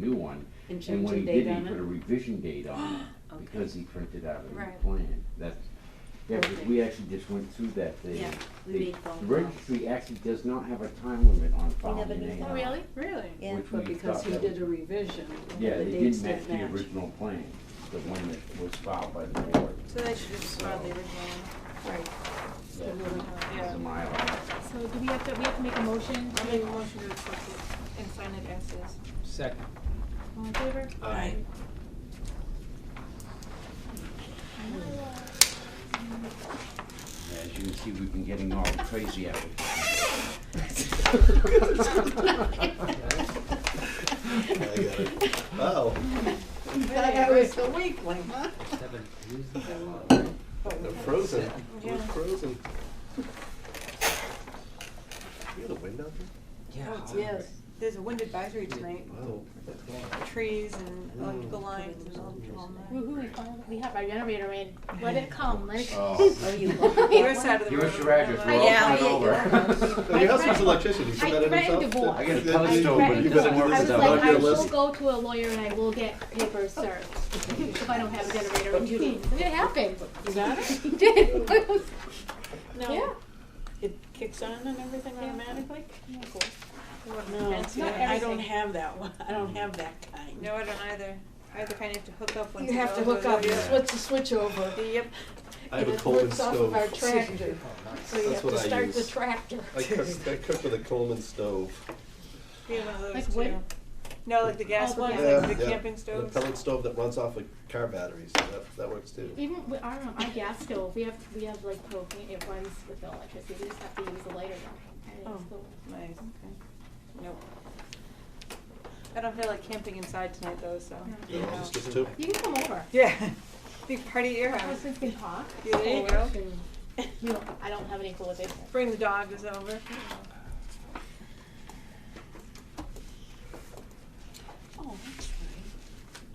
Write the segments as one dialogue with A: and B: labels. A: new one.
B: And change the
A: when he
B: date
A: did, he
B: on
A: put
B: it?
A: a revision date on it,
B: Okay.
A: because he printed out a new
B: Right.
A: plan. That's, yeah, 'cause
B: Okay.
A: we actually just went through that, the,
B: Yeah, we
A: the
B: made phone
A: the
B: calls.
A: registry actually does not have a time limit on filing
C: never
A: an
C: knew
A: A and
C: that.
A: R,
C: Oh, really?
D: Really?
C: Yeah.
A: which
B: But
A: we
B: because
A: thought
B: he
A: that
B: did
A: was-
B: a revision,
A: Yeah,
B: the
A: they
B: dates
A: didn't match
B: didn't
A: the
B: match.
A: original plan, the one that was filed by the board.
D: So they should just file the original one.
C: Right.
A: That
D: Yeah.
A: is a mile.
E: So do we have to, we have to make a motion
D: I
E: to,
D: make a motion to accept it and sign it as is.
F: Second.
E: all in favor?
F: Aye.
A: As you can see, we've been getting all crazy out
G: Oh,
C: Thought I was the weakling, huh?
F: Seven. Who's the
G: I'm frozen. We're frozen. You got a wind out
F: Yeah.
D: Oh, yes. There's a wind advisory tonight,
G: there? Wow.
D: trees and
A: Mm.
D: electrical lines and all, all that.
E: Woohoo, we finally, we have our generator in, let it come, let it.
A: Oh,
C: Oh, you
D: Your side of the road.
A: give us your address, we're all
C: Yeah,
A: coming
C: yeah,
A: over.
G: Your house needs electricity, so
E: I
G: that in
E: threatened
G: itself.
E: divorce.
A: I got a
E: I
A: post over, you
E: threatened
G: You
E: to-
A: better do
G: better do
E: I
A: this
E: was
G: is
A: stuff.
G: on
E: like, I
G: your
E: will
G: list.
E: go to a lawyer and I will get papers served, if I don't have a generator in Judy, it happened. You got it? did, It was- yeah.
D: No, it kicks on and everything automatically?
B: Uh-huh. No, I
E: Not
B: don't
E: everything.
B: have that one, I don't have that kind.
D: No, I don't either. I either kind of have to hook up once.
B: You
D: it
B: have to
D: goes
B: hook up,
D: over.
G: Yeah.
B: switch the switch over.
D: Yep.
G: I have
B: and
G: a
B: it
G: Coleman
B: works off of our
G: stove.
B: tractor, so you have
G: That's
B: to
G: what I
B: start the
G: use.
B: tractor.
G: I cook, I cook with a Coleman stove.
D: We have one of
E: Like
D: those
E: wood?
D: too. No, like the gas
E: Oh,
D: ones,
E: yeah.
D: like the
G: yeah.
D: camping
G: And
D: stoves.
G: A pellet stove that runs off of car batteries, so that, that works too.
E: Even with our, our gas stove, we have, we have like propane, it runs with the electricity, we just have to use a lighter now.
D: Oh. Nice, okay. Nope. I don't feel like camping inside tonight though, so.
E: Yeah.
G: You
D: you
G: know,
D: know.
G: just, just two.
E: You can come over.
D: Yeah. Big party at your
E: I was
D: house.
E: just gonna talk.
D: Yeah, there you
E: Or
D: go.
E: can- You know, I don't have any prohibition.
D: Bring the dogs over.
B: Oh, that's right.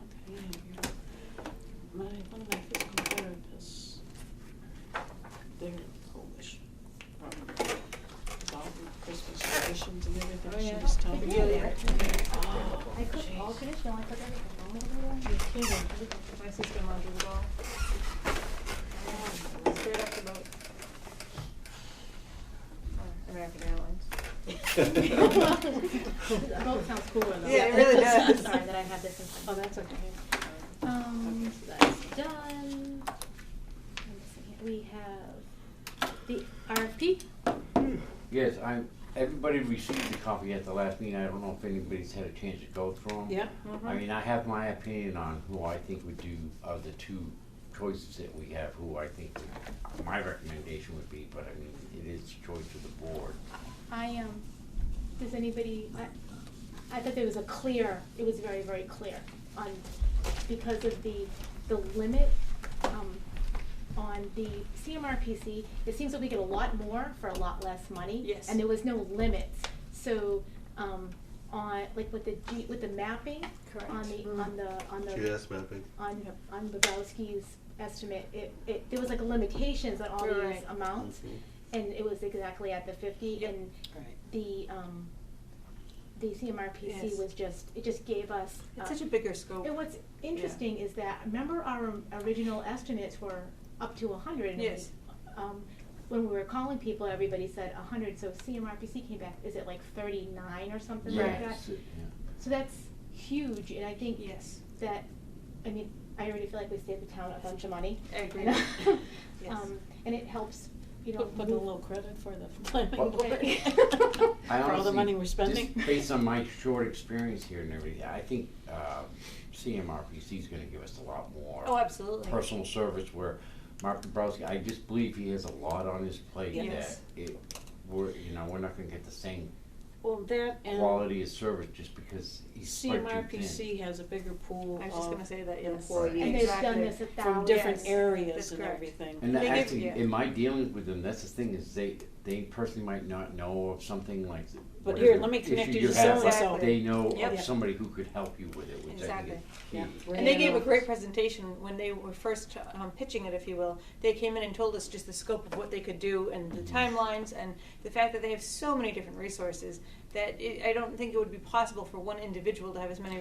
B: Okay, yeah, you're- My, one of my physical therapists, they're Polish, from about Christmas traditions and
D: Oh,
B: everything,
D: yeah.
B: she was telling me.
E: Yeah, yeah.
B: Oh,
E: I cook all
B: jeez.
E: traditional, I cook everything.
B: You're kidding.
D: My sister-in-law did it all. Straight off the boat. Or American Airlines.
E: Boat sounds cooler though.
D: Yeah, it really does.
E: Sorry that I have this in
B: Oh,
E: front of me.
B: that's okay.
E: Um, so that's done. Let me see here. We have the RFP.
A: Yes, I'm, everybody received the copy at the last meeting, I don't know if anybody's had a chance to go through them.
B: Yeah.
A: I mean, I have my opinion on who I think would do, of the two choices that we have, who I think, would- my recommendation would be, but I mean, it is the choice of the board.
E: I, um, does anybody, I, I thought there was a clear, it was very, very clear on, because of the, the limit, um, on the CMRPC, it seems that we get a lot more for a lot less money.
D: Yes.
E: And there was no limits, so, um, on, like with the G, with the mapping,
D: Correct.
E: on the, on the, on the
G: GIS mapping.
E: on, on Bobrowski's estimate, it, it, there was like limitations on all these
D: Right.
E: amounts.
G: Mhm.
E: And it was exactly at the fifty and
B: Right.
E: the, um, the CMRPC
D: Yes.
E: was just, it just gave us.
D: It's
E: uh,
D: such a bigger scope.
E: And what's interesting is that, remember our original estimates were up to a hundred?
D: Yes.
E: Um, when we were calling people, everybody said a hundred, so CMRPC came back, is it like thirty-nine or something like that?
A: Yes, it- yeah.
E: So that's huge, and I think
D: Yes.
E: that, I mean, I already feel like we saved the town a bunch of money.
D: I agree.
E: And,
D: Yes.
E: Um, and it helps, you know.
B: Put, put a
E: move-
B: little credit for the planning
A: Well,
B: board.
E: okay.
A: I
B: For all the
A: honestly,
B: money we're
A: just
B: spending.
A: based on my short experience here and everything, I think uh, CMRPC is going to give us a lot more
D: Oh, absolutely.
A: personal service. Where Mark Dabrowski, I just believe he has a lot on his plate
D: Yeah. Yes.
A: that it, we're you know we're not going to get the same
B: Well, that and
A: quality of service just because he's spread too thin.
B: CMRPC has a bigger pool
D: I was just gonna
B: of
D: say that, yes.
A: Right.
E: And
D: Exactly.
E: they've done this a
B: from
E: thousand.
B: different
D: Yes, that's
B: areas and
D: correct.
B: everything.
A: And
D: They give-
A: actually,
D: yeah.
A: in my dealings with them, that's the thing is they they personally might not know of something like.
B: But here,
A: whatever
B: let me connect
A: issue
B: you to
A: have, but
B: so-and-so.
A: They know
D: Yep.
A: of somebody who could help you with it, which I
D: Exactly.
A: think is
B: Yeah.
A: key.
B: We're
D: And they gave a
B: handling-
D: great presentation when they were first um, pitching it, if you will. They came in and told us just the scope of what they could do and the timelines and the fact that they have so many different resources that it, I don't think it would be possible for one individual to have as many